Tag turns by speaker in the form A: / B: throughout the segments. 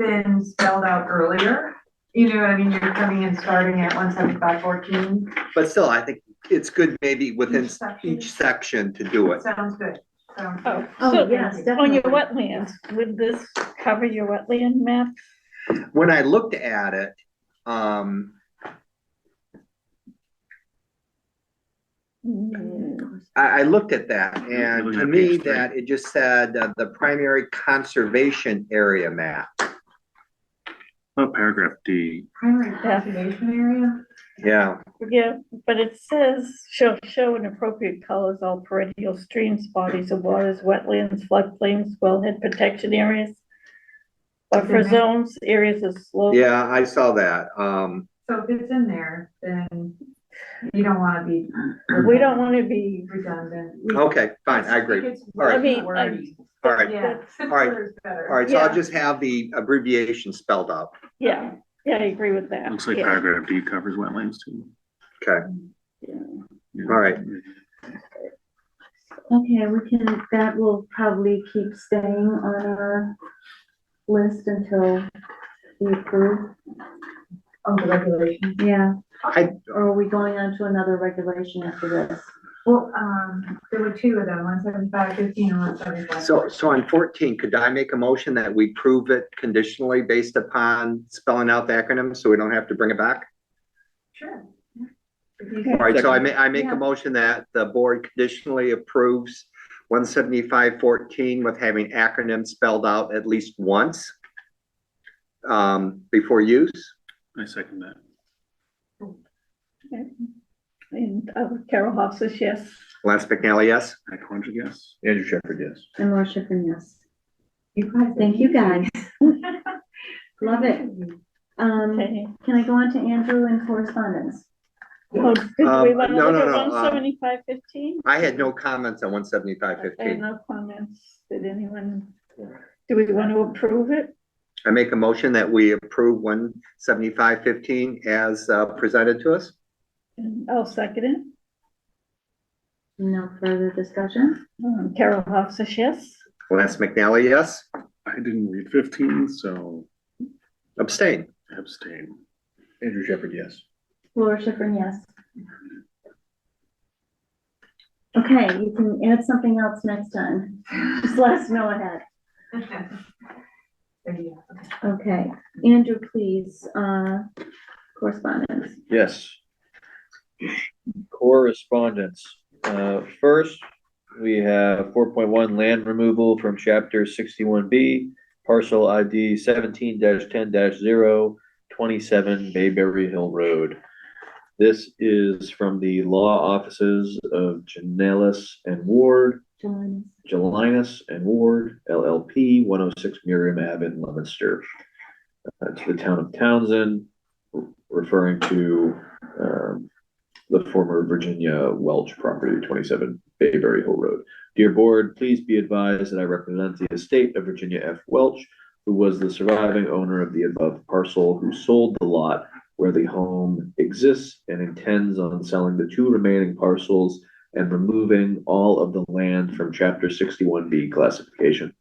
A: been spelled out earlier, you know what I mean, you're coming and starting at one seventy-five fourteen,
B: But still, I think it's good maybe within
A: Each section.
B: each section to do it.
A: sounds good, sounds
C: Oh,
A: good.
D: Oh,
C: so
D: yes,
C: on your
D: definitely.
C: wetlands, would this cover your wetland map?
B: When I looked at it, um,
C: Mm,
B: I, I looked at that and
E: Looking
B: to
E: at
B: me
E: page three.
B: that it just said uh, the primary conservation area map.
E: Oh, paragraph D.
A: Primary
C: Yeah.
A: conservation area,
B: Yeah,
C: Yeah, but it says, shall show in appropriate colors all perennial streams, bodies of waters, wetlands, floodplains, wellhead protection areas. Buffer
A: Okay.
C: zones, areas of slope.
B: yeah, I saw that. Um,
A: so if it's in there, then you don't wanna be.
C: We don't wanna be,
A: Redundant.
B: okay, Oh, fine, I agree. right.
C: I mean, I-
B: All right,
A: Yeah.
B: All right.
A: simpler is better.
B: all right, so
C: Yeah.
B: I'll just have the abbreviation spelled out.
C: yeah, yeah, I agree with that.
E: Looks like
C: yeah.
E: paragraph D covers wetlands too.
B: Okay,
C: Yeah.
E: Yeah.
B: all right.
D: Okay, we can, that will probably keep staying on our list until we approve.
A: Oh, the regulation,
D: Yeah,
B: I,
D: or are we going on to another regulation after this?
A: well, um, there were two of them, one seventy-five fifteen and one seventy-five.
B: so, so on fourteen, could I make a motion that we prove it conditionally based upon spelling out the acronym so we don't have to bring it back?
A: Sure.
B: All right, so I ma- I make
A: Yeah.
B: a motion that the board conditionally approves one seventy-five fourteen with having acronyms spelled out at least once um, before use.
E: I second that.
C: And uh, Carol Hoff says yes.
B: Lance McNally, yes?
E: Matt Calandra, yes.
B: Andrew Shepherd, yes.
D: And Laura Schiffern, yes.
A: You guys-
D: Thank you, guys. Love it. Um,
C: Okay.
D: can I go on to Andrew and correspondence?
C: Oh, did we
B: Um,
C: wanna
B: no,
C: look
B: no,
C: at
B: no, uh,
C: 175.15?
B: I had no comments on one seventy-five
C: Okay,
B: fifteen.
C: no comments. Did anyone, do we want to approve it?
B: I make a motion that we approve one seventy-five fifteen as uh, presented to us.
C: And I'll second it.
D: No further discussion?
C: Um, Carol Hoff says yes.
B: Lance McNally, yes?
E: I didn't read fifteen, so
B: Abstain.
E: abstain.
B: Andrew Shepherd, yes.
D: Laura Schiffern, yes. Okay, you can add something else next time. Just let us know ahead.
A: There you go.
D: Okay, Andrew, please, uh, correspondence.
F: Yes. Correspondence. Uh, first, we have four point one land removal from chapter sixty-one B, parcel ID seventeen 10 27 Bayberry Hill Road. This is from the law offices of Janelis and Ward,
D: Joanne.
F: Jelinus and Ward LLP, one oh six Miriam Ave in Leominster. uh, to the town of Townsend, referring to, um, the former Virginia Welch property, twenty-seven Bayberry Hill Road. Dear Board, please be advised that I represent the estate of Virginia F. Welch, who was the surviving owner of the above parcel, who sold the lot where the home exists and intends on selling the two remaining parcels and removing all of the land from chapter sixty-one B classification.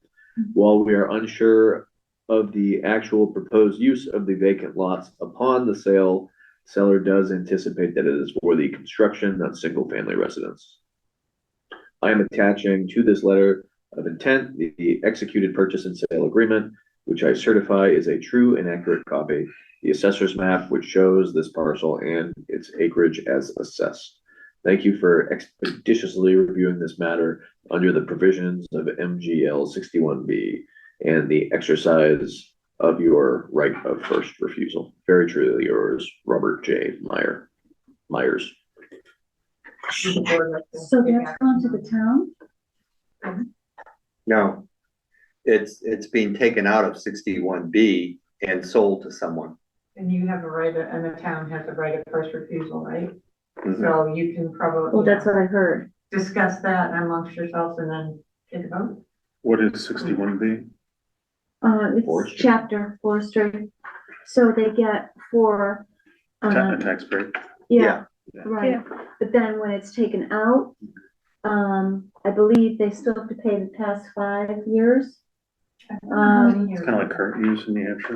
F: While we are unsure of the actual proposed use of the vacant lots upon the sale, seller does anticipate that it is for the construction of single-family residence. I am attaching to this letter of intent the- the executed purchase and sale agreement, which I certify is a true and accurate copy. The assessor's map which shows this parcel and its acreage as assessed. Thank you for expeditiously reviewing this matter under the provisions of MGL sixty-one B and the exercise of your right of first refusal. Very truly yours, Robert J. Meyer, Myers.
D: So that's gone to the town?
B: No. It's, it's being taken out of sixty-one B and sold to someone.
A: And you have a right, of- and the town has a right of first refusal, right?
B: Mhm.
A: So you can probably.
D: Well, that's what I heard.
A: Discuss that amongst yourselves and then take a vote.
E: What is sixty-one B?
D: Uh, it's
F: Forestry.
D: chapter forestry. So they get for,
E: Ta-
C: Uh-huh.
D: uh,
E: a tax break?
D: yeah, right.
C: Yeah.
D: But then when it's taken out, um, I believe they still have to pay the past five years.
A: I don't know how many
D: Um,
A: years.
E: Kind of like current use in New Hampshire.